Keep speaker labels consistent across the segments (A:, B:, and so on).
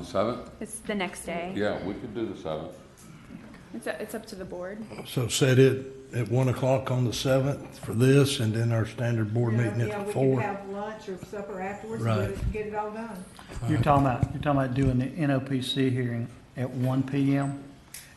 A: The seventh?
B: It's the next day.
A: Yeah, we could do the seventh.
B: It's, it's up to the board.
C: So set it at one o'clock on the seventh for this, and then our standard board
D: Yeah,
C: meeting
D: yeah,
C: at
D: We can
C: four.
D: have lunch or supper afterwards,
C: Right.
D: and get it- get it all done.
E: You're talking about, you're talking about doing the NOPC hearing at one PM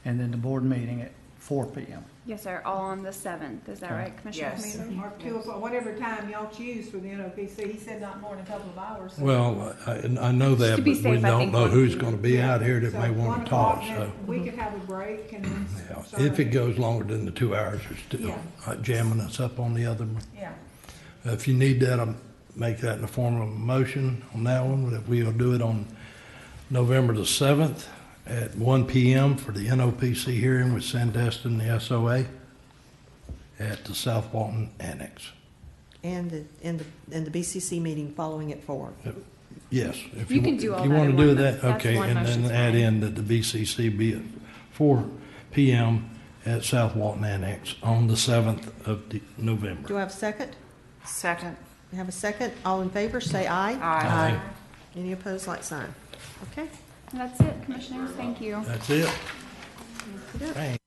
E: and then the board meeting at four PM.
B: Yes, sir, all on the seventh. Is that
E: Okay.
B: right, Commissioner?
D: I
F: Yes.
B: Camino?
D: mean, or two, o'clock, whatever time y'all choose for the NOPC, he said not more than a couple of hours. so-
C: Well, I, I know
B: To
C: that,
B: be
C: but we
B: safe, I
C: don't
B: think
C: know
B: one-
C: who's gonna be out here that
D: So
C: may
D: one
C: wanna
D: o'clock,
C: talk, so.
D: then We could have a break and then.
C: yeah,
D: start
C: If it
D: it.
C: goes longer than the two hours, it's still
D: Yeah.
C: uh, jamming us up on the other one.
D: Yeah,
C: If you need that, I'll make that in the form of a motion on that one, that we'll do it on November the seventh at one PM for the NOPC hearing with Sandestin and the SOA at the South Walton Annex.
F: And the, and the, and the BCC meeting following at four.
C: Yes. if
B: You can
C: wa-
B: do
C: if
B: all
C: you
B: that
C: want
B: in
C: to do
B: one
C: that,
B: month. That's
C: Okay,
B: one
C: and then
B: motion's
C: add
B: fine.
C: in that the BCC be at four PM at South Walton Annex on the seventh of the-
F: Do
C: November.
F: I have a second?
G: Second.
F: Have a second? All in favor, say aye.
G: Aye.
F: Any opposed, like sign. Okay.
B: That's it, Commissioners. Thank you.
C: That's it. Dang.